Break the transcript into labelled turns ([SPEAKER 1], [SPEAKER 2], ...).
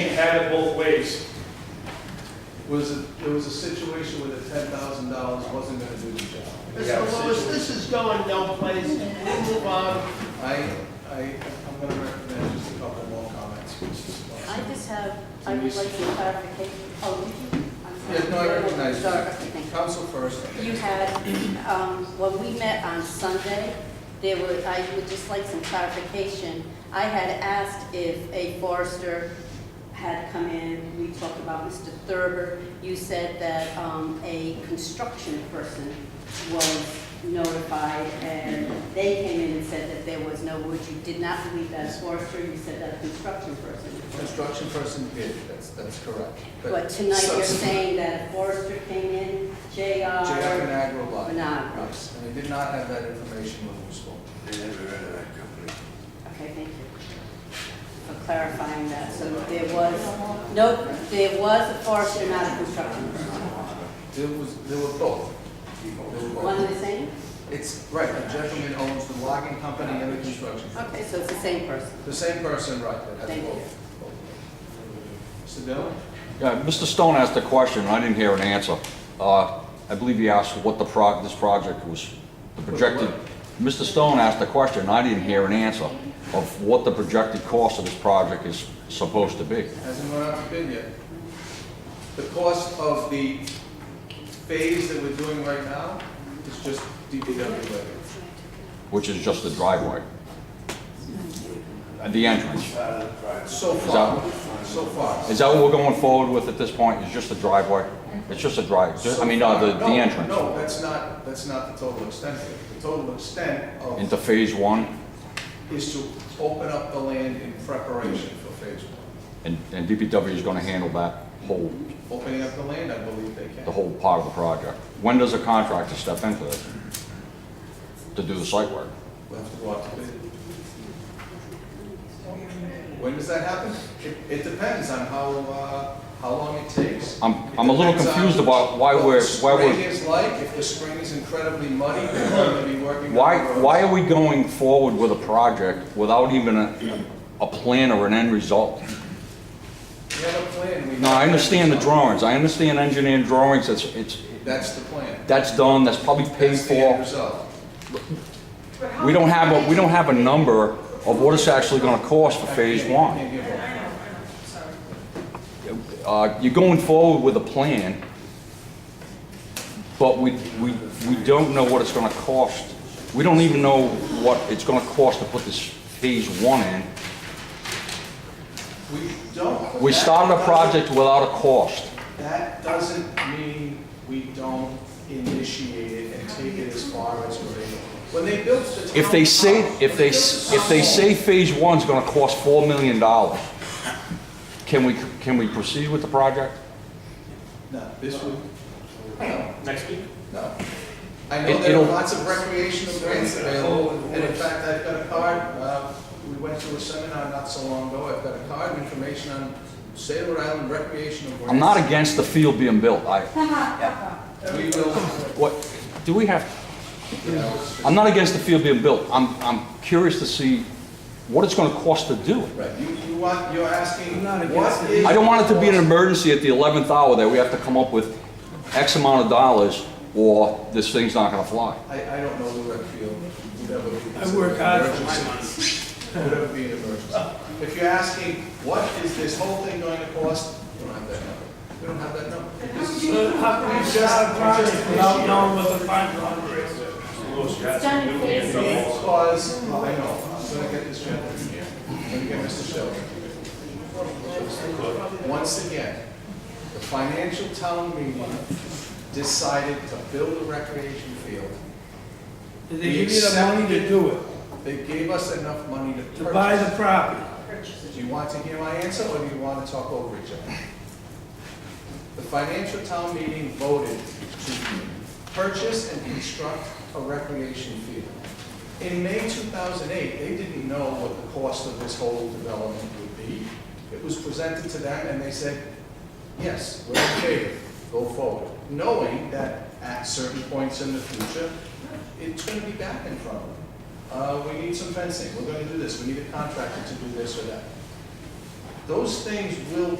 [SPEAKER 1] had it both ways.
[SPEAKER 2] Was, it- there was a situation where the ten thousand dollars wasn't gonna do the job.
[SPEAKER 1] Yeah,
[SPEAKER 3] Mr. Lewis,
[SPEAKER 1] situation.
[SPEAKER 3] this is going no place. We move on.
[SPEAKER 2] I, I, I'm gonna recommend just a couple more comments, which is
[SPEAKER 4] I
[SPEAKER 2] possible.
[SPEAKER 4] just have, I would like some clarification. Oh, did you? I'm sorry.
[SPEAKER 2] Yeah, no, I recognize
[SPEAKER 4] Sorry, okay, thank
[SPEAKER 2] you. Council first. I
[SPEAKER 4] you. You
[SPEAKER 2] think.
[SPEAKER 4] had, um, when we met on Sunday, there were, I would just like some clarification. I had asked if a forester had come in, we talked about Mr. Thurber. You said that um, a construction person was notified, and they came in and said that there was no wood. You did not believe that a forester, you said that a construction person. was.
[SPEAKER 2] Construction person did, that's, that's correct.
[SPEAKER 4] But tonight you're
[SPEAKER 2] subs-
[SPEAKER 4] saying uh, that a forester came in,
[SPEAKER 2] JF
[SPEAKER 4] JR,
[SPEAKER 2] and Agro Lot.
[SPEAKER 4] Vinagro.
[SPEAKER 2] Yes, and I did not have that information when we spoke.
[SPEAKER 5] They never heard of that company.
[SPEAKER 4] okay, thank you for clarifying that. So there was, no, there was a forester, not a construction person.
[SPEAKER 2] There was, there were both. There were
[SPEAKER 4] One
[SPEAKER 2] both.
[SPEAKER 4] and the same?
[SPEAKER 2] It's, right, the gentleman owns the logging company and the construction.
[SPEAKER 4] Okay, so it's the same person.
[SPEAKER 2] The same person, right, that has
[SPEAKER 4] Thank you.
[SPEAKER 2] both. Mr. Dillon?
[SPEAKER 6] Yeah, Mr. Uh, Stone asked a question, I didn't hear an answer. Uh, I believe he asked what the pro, this project was, the projected, Mr. Stone asked a question, I didn't hear an answer of what the projected cost of this project is supposed to be.
[SPEAKER 2] Hasn't gone out to bid yet. The cost of the phase that we're doing right now is just DPW labor.
[SPEAKER 6] which is just the driveway. At the entrance.
[SPEAKER 5] Part of the private.
[SPEAKER 2] So far, so far.
[SPEAKER 6] Is that what we're going forward with at this point, is just the driveway? It's just a drive, I mean, uh, the, the
[SPEAKER 2] No,
[SPEAKER 6] entrance
[SPEAKER 2] No, that's not, that's not the total extent of it. The total extent
[SPEAKER 6] into
[SPEAKER 2] of,
[SPEAKER 6] phase one?
[SPEAKER 2] is to open up the land in preparation for phase one.
[SPEAKER 6] And, and DPW is gonna handle that whole,
[SPEAKER 2] Opening up the land, I believe they can.
[SPEAKER 6] the whole part of the project. When does a contractor step into it to do the site work?
[SPEAKER 2] We'll have to go out to bid. When does that happen? It, it depends on how, uh, how long it takes.
[SPEAKER 6] I'm- I'm a little
[SPEAKER 2] It depends on
[SPEAKER 6] confused about why we're- why
[SPEAKER 2] What the
[SPEAKER 6] we're-
[SPEAKER 2] spring is like, if the spring is incredibly muddy, we're going to be working. on
[SPEAKER 6] Why,
[SPEAKER 2] roads.
[SPEAKER 6] why are we going forward with a project without even a, a plan or an end result?
[SPEAKER 2] We have a plan. we
[SPEAKER 6] No,
[SPEAKER 2] have-
[SPEAKER 6] I understand the drawings, I understand engineering drawings, it's, it's,
[SPEAKER 2] That's the plan.
[SPEAKER 6] that's done, that's probably paid
[SPEAKER 2] That's the end
[SPEAKER 6] for.
[SPEAKER 2] result.
[SPEAKER 6] We don't have a, we don't have a number of what it's actually gonna cost for phase
[SPEAKER 2] I can't- I
[SPEAKER 6] one.
[SPEAKER 2] can't give up.
[SPEAKER 6] Uh, you're going forward with a plan, but we, we, we don't know what it's gonna cost. We don't even know what it's gonna cost to put this phase one in.
[SPEAKER 2] We don't. but
[SPEAKER 6] We
[SPEAKER 2] that
[SPEAKER 6] started a
[SPEAKER 2] doesn't-
[SPEAKER 6] project without a cost.
[SPEAKER 2] That doesn't mean we don't initiate it and take it as far as we're able. When they built the town.
[SPEAKER 6] If they say,
[SPEAKER 2] hall-
[SPEAKER 6] if they, s- if they say phase one's gonna cost four million dollars, can we, can we proceed with the project?
[SPEAKER 2] No, this would, no,
[SPEAKER 1] Next week?
[SPEAKER 2] no. I
[SPEAKER 6] It-
[SPEAKER 2] know there
[SPEAKER 6] it'll-
[SPEAKER 2] are lots of recreational grants available, and in fact, I've got a card, uh, we went to a seminar not so long ago, I've got a card, and information on state of Rhode Island recreational grants.
[SPEAKER 6] I'm not against the field being built, I,
[SPEAKER 2] We will,
[SPEAKER 6] what, do we have,
[SPEAKER 2] you know, it's-
[SPEAKER 6] I'm not against the field being built, I'm, I'm curious to see what it's gonna cost to do it.
[SPEAKER 2] right, you, you want, you're asking, what is.
[SPEAKER 6] I don't want it to be an emergency at the eleventh hour that we have to come up with X amount of dollars, or this thing's not gonna fly.
[SPEAKER 2] I, I don't know the rec field, whatever.
[SPEAKER 3] I work hard for my
[SPEAKER 2] Whatever be an emergency. If you're asking, what is this whole thing going to cost, we don't have that number. We don't have that number. This is-
[SPEAKER 3] So how can we start a project without knowing what the final number is?
[SPEAKER 4] It's done in phase one.
[SPEAKER 2] Because, I know, I'm gonna get this gentleman here, I'm gonna get Mr. Sheldon. Once again, the financial town meeting decided to build a recreation field.
[SPEAKER 3] Did they give you the money to do it,
[SPEAKER 2] They gave us enough money
[SPEAKER 3] to
[SPEAKER 2] to
[SPEAKER 3] buy the
[SPEAKER 2] purchase.
[SPEAKER 3] property?
[SPEAKER 2] Do you want to hear my answer, or do you want to talk over each other? The financial town meeting voted to purchase and construct a recreation field. In May 2008, they didn't know what the cost of this whole development would be. It was presented to them, and they said, yes, we're in favor, go forward, knowing that at certain points in the future, it's going to be back in front of them. Uh, We need some fencing, we're going to do this, we need a contractor to do this or that. Those things will